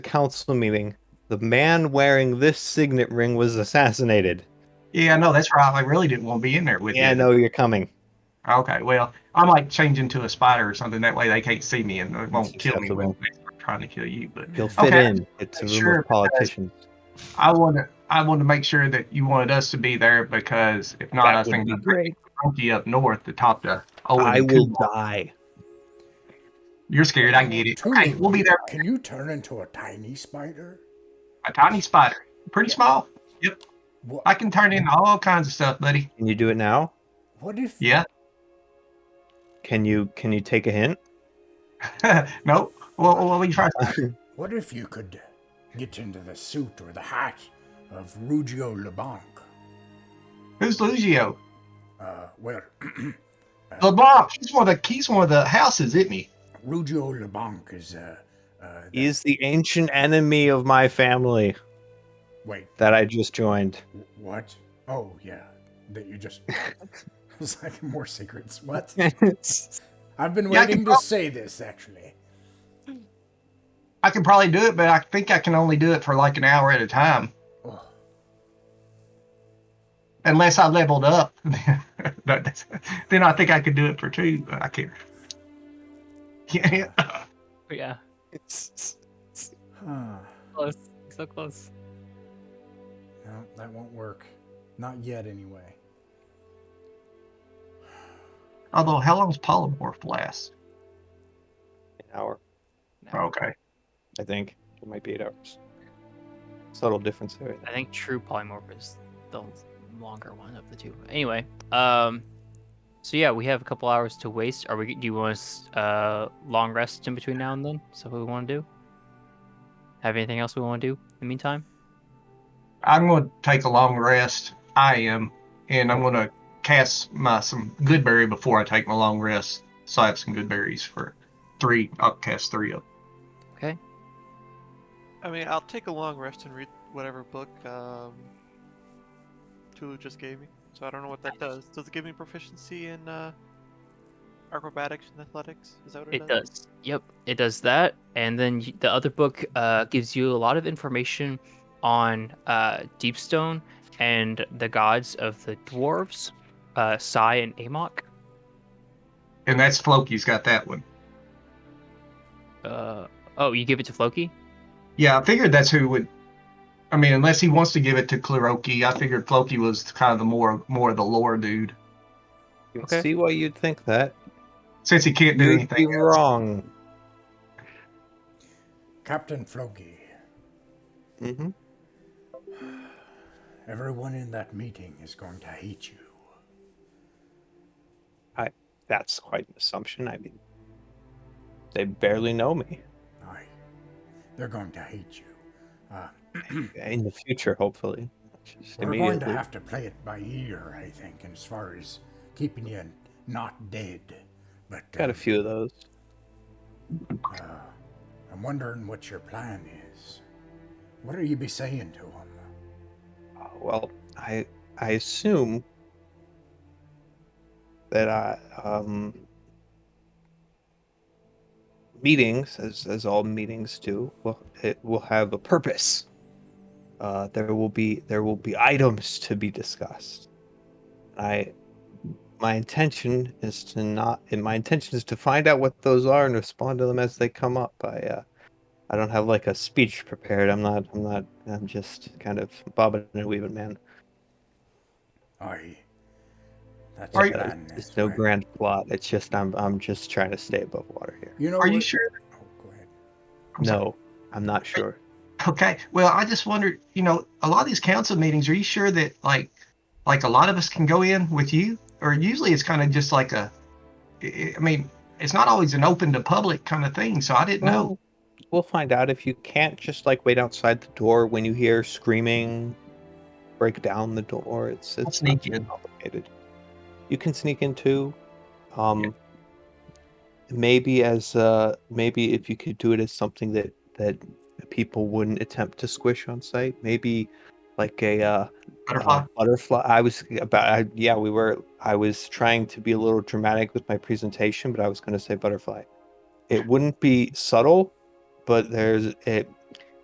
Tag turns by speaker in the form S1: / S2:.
S1: council meeting, the man wearing this signet ring was assassinated.
S2: Yeah, no, that's right. I really didn't want to be in there with
S1: Yeah, I
S2: you.
S1: know you're coming.
S2: Okay, well, I might change into a spider or something. That way they can't see me and it won't kill me
S1: Acceptable.
S2: when they're trying to kill you. But
S1: You'll fit
S2: Okay.
S1: in. It's a room
S2: Sure,
S1: of politicians.
S2: I want to. I want to make sure that you wanted us to be there because if not,
S1: That
S2: I
S1: would
S2: think
S1: be
S2: the
S3: Great.
S2: monkey up north to top the. Oh,
S1: I will die.
S2: You're scared. I get it.
S4: Tony,
S2: Okay, we'll be there.
S4: Can you turn into a tiny spider?
S2: A tiny spider, pretty small.
S4: What,
S2: I can turn into all kinds of stuff, buddy.
S1: Can you do it now?
S4: what if
S2: Yeah.
S1: Can you can you take a hint?
S2: no. Well, well, we try.
S4: What if you could get into the suit or the hat of Ruggiero LeBlanc?
S2: Who's Lugio?
S4: Uh, well,
S2: LeBlanc. He's one of the. He's one of the houses, isn't he?
S4: Ruggiero LeBlanc is uh, uh, the-
S1: Is the ancient enemy of my family
S4: wait,
S1: that I just joined.
S4: wh- what? Oh yeah, that you just. it's like more secrets. What? I've been
S2: Yeah, I can
S4: waiting to
S2: prob-
S4: say this actually.
S2: I could probably do it, but I think I can only do it for like an hour at a time,
S4: Oh,
S2: unless I leveled up. But that's- then I think I could do it for two, but I can't. Yeah.
S3: Yeah.
S4: huh.
S3: Close. So close.
S4: No, that won't work. Not yet, anyway.
S2: Although, how long's polymorph last?
S1: An hour,
S2: Okay.
S1: I think. It might be eight hours. Subtle difference there.
S3: I think true polymorph is the longer one of the two. Anyway, um, so yeah, we have a couple hours to waste. Are we? Do you want us uh long rest in between now and then? Is that what we want to do? Have anything else we want to do in the meantime?
S2: I'm going to take a long rest. I am. And I'm going to cast my some good berry before I take my long rest. So I have some good berries for three. I'll cast three of them.
S3: Okay.
S5: I mean, I'll take a long rest and read whatever book um, Tulu just gave me. So I don't know what that does. Does it give me proficiency in uh, acrobatics and athletics? Is that what it,
S3: It does. Yep, it does that. And then y- the other book uh, gives you a lot of information on uh, Deepstone and the gods of the dwarves, uh, Sai and Amok.
S2: And that's Floki's got that one.
S3: Uh, oh, you give it to Floki?
S2: Yeah, I figured that's who would. I mean, unless he wants to give it to Kleroki, I figured Floki was kind of the more more of the lore dude,
S1: You
S3: Okay.
S1: See why you'd think that.
S2: since he can't do
S1: You'd be
S2: anything. else.
S1: wrong.
S4: Captain Floki,
S1: Mm-hmm.
S4: everyone in that meeting is going to hate you.
S1: That's quite an assumption. I mean, they barely know me.
S4: I, they're going to hate you. Uh,
S1: In the future, hopefully. Just
S4: We're going to
S1: immediately.
S4: have to play it by ear, I think, as far as keeping you not dead. But
S1: Got a
S4: um,
S1: few of those.
S4: uh, I'm wondering what your plan is. What are you be saying to him?
S1: Uh, well, I I assume that I um meetings, as as all meetings do, will it will have a purpose. Uh, there will be there will be items to be discussed. I my intention is to not and my intention is to find out what those are and respond to them as they come up. I uh, I don't have like a speech prepared. I'm not I'm not I'm just kind of bobbing and weaving, man.
S4: I. That's
S2: Are
S4: the
S2: you-
S4: plan.
S1: It's
S4: that's
S1: no
S4: right.
S1: grand plot. It's just I'm I'm just trying to stay above water here.
S4: You know
S2: Are you
S4: what-
S2: sure?
S4: Oh, go ahead.
S2: I'm sorry.
S1: no, I'm not sure.
S2: Okay. Well, I just wondered. You know, a lot of these council meetings. Are you sure that like, like a lot of us can go in with you? Or usually it's kind of just like a. I I mean, it's not always an open to public kind of thing. So I didn't know.
S1: We'll find out if you can't just like wait outside the door when you hear screaming, break down the door. It's
S2: I'll
S1: it's
S2: sneak
S1: not too
S2: in.
S1: complicated. You can sneak in too. Um, maybe as uh maybe if you could do it as something that that people wouldn't attempt to squish on site. Maybe like a uh
S2: Butterfly.
S1: Uh, butterfly. I was about. I, yeah, we were. I was trying to be a little dramatic with my presentation, but I was going to say butterfly. It wouldn't be subtle, but there's it.